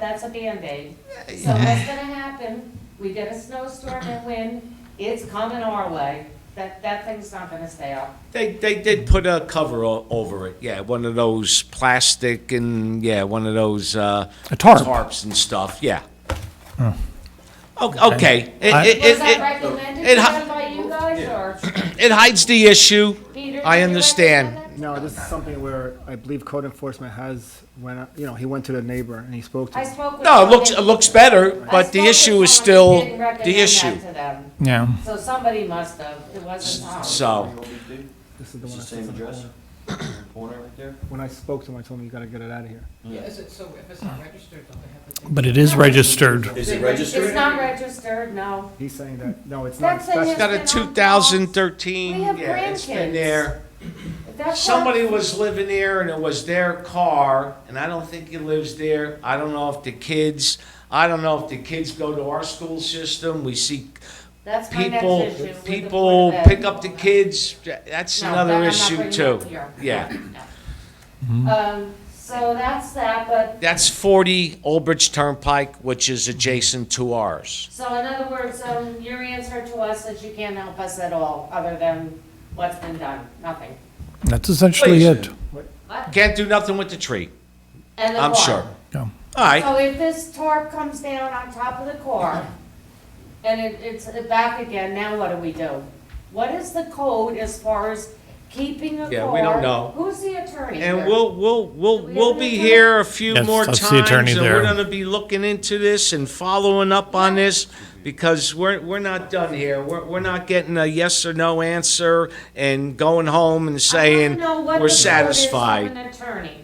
that's a Band-Aid. So Yeah, what's gonna happen, we get a snowstorm and wind, it's coming our way. That, that thing's not gonna stay up. They, they did put a cover o- over it, yeah, one of those plastic and, yeah, one of those, uh. A tarp. Hmm. Tarps and stuff, yeah. O- Okay, it, I- it, Was it- that recommended it to hi- them by you guys, or it, it hides the issue, Peter? I did you understand. recommend No, this is something where I believe code enforcement has, when, you know, he went to the neighbor and he spoke that? to I him. spoke with. no, it looks, it someone- looks better, I but spoke the with issue is someone still who didn't the recommend issue, that to them. yeah. So somebody must have, it wasn't Tom. so, This is the one It's I the said. same address, something. corner right there. When I spoke to him, I told him, you gotta get it out of here. Yeah, is it, so if it's not registered, don't they have to? take But it is registered. Is it It's registered? not registered, no. He's saying that, no, it's not. That's in his- that's- got a two thousand thirteen, We have yeah, it's grandkids. been there. If that Somebody car- was living there and it was their car, and I don't think he lives there. I don't know if the kids, I don't know if the kids go to our school system. We see That's my next people, issue with the people Board of Ed. pick up the kids. That's No, that I'm another not issue bringing up too. here. Yeah, Mm-hmm. Um, so that's that, but, that's forty Old Bridge Turnpike, which is adjacent to ours. so in other words, um, your answer to us is you can't help us at all, other than what's been done, nothing. That's essentially it. What? Can't do nothing with the tree, And the I'm car. sure. Yeah. All right, So if this tarp comes down on top of the car, and it, it's back again, now what do we do? What is the code as far as keeping a car? Yeah, we don't know. Who's the attorney and here? we'll, we'll, we'll, Do we we'll have be any- here a few Yes, more that's times. the attorney and there. We're gonna be looking into this and following up on this, because we're, we're not done here. We're, we're not getting a yes or no answer and going home and saying, I wanna know what the we're code is satisfied. of an attorney.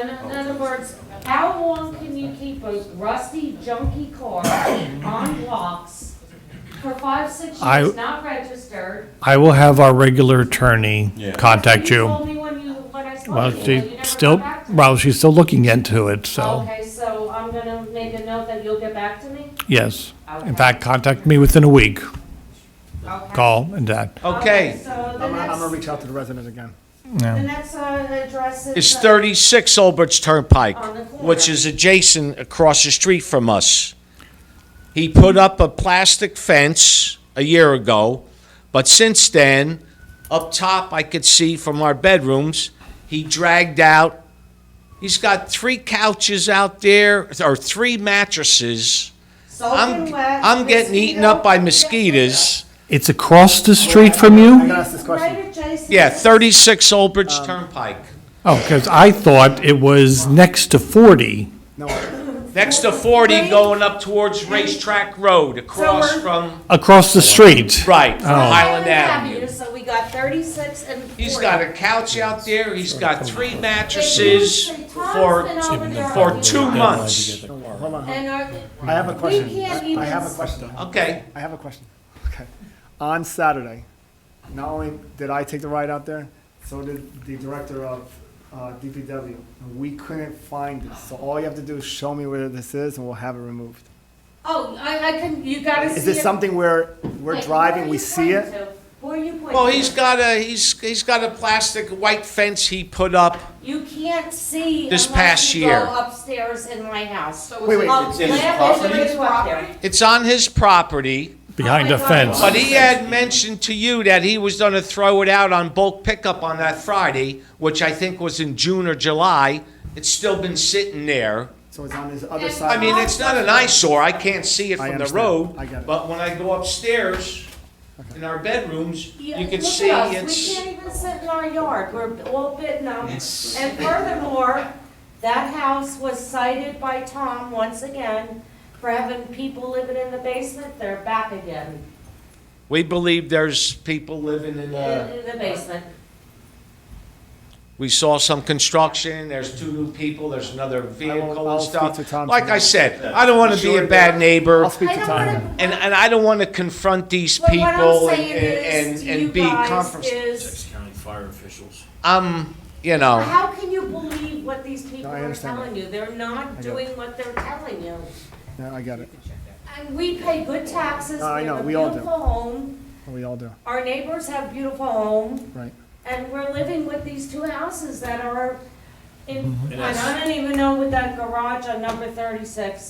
In in other words, how long can you keep a rusty, junky car on blocks for five, six I- years, not registered? I will have our regular attorney Yeah. contact you. told me when you, when I spoke Well, to you, you she never still, got back to me. well, she's still looking into it, so, Okay, so I'm gonna make a note that you'll get back to me? yes. Okay. In fact, contact me within a week. Okay. Call and that. Okay, So the I'm, gonna- I'm gonna next, reach out to the resident again. the next uh, address is. it's uh, thirty-six Old Bridge Turnpike, On the corner. which is adjacent across the street from us. He put up a plastic fence a year ago, but since then, up top, I could see from our bedrooms, he dragged out, he's got three couches out there, or three mattresses. Soaking I'm, wet. I'm getting eaten up by mosquitoes. It's across the street from you? I'm gonna ask this question. Right adjacent. Yeah, thirty-six Old Bridge Um, Turnpike, Oh, because I thought it was next to 40. No, next to forty going up towards Racetrack Road, across we're- from, Across the street. right, Oh. from Highland Avenue. So we got thirty-six and forty. He's got a couch out there, he's got three mattresses Tom's been for, over there for arguing. two months. hold on, And are, I have a question. can't I have even- a question. Okay, I have a question. Okay. On Saturday, not only did I take the ride out there, so did the director of uh, DPW. And we couldn't find it. So all you have to do is show me where this is and we'll have it removed. oh, I, I can, you gotta see. Is this it. something where we're Wait, who are driving, we you see pointing it? to? Who are you pointing? well, he's to? got a, he's, he's got a plastic white fence he put up. You can't see. This unless past you year. Go upstairs in my house. So Wait, is it- wait. Um, It's in Lamp his is property? already up there. It's on his property, Behind Oh a my God. fence. but he had mentioned to you that he was gonna throw it out on bulk pickup on that Friday, which I think was in June or July. It's still been sitting there. So it's on this other I mean, side. it's not an eyesore, I can't see it I from the understand. road, I get it. but when I go upstairs in our bedrooms, Yeah, you can look see at us. We it's, can't even sit in our yard, we're all bitten up. And furthermore, that house was cited by Tom once again for having people living in the basement, they're back again we believe there's people living in uh, in a, in the basement. we saw some construction, there's two new people, there's another vehicle I'll and speak to stuff. Tom Like I tonight. said, I don't wanna be a Sure. bad neighbor, I'll speak I to don't Tom. wanna- and, and I don't wanna confront these But what I'm people and, saying and, is, and- to you and be guys confrontational. is, County fire officials. I'm, you know, how can you believe what these people Oh. No, I are understand that. telling you? They're not it. doing what they're telling you. No, I get it. And we pay good taxes, we No, I know, have a we all do. beautiful home, We all do, our neighbors have beautiful homes. right? And we're living with these two houses that are It- And I don't even know with that garage on number thirty-six,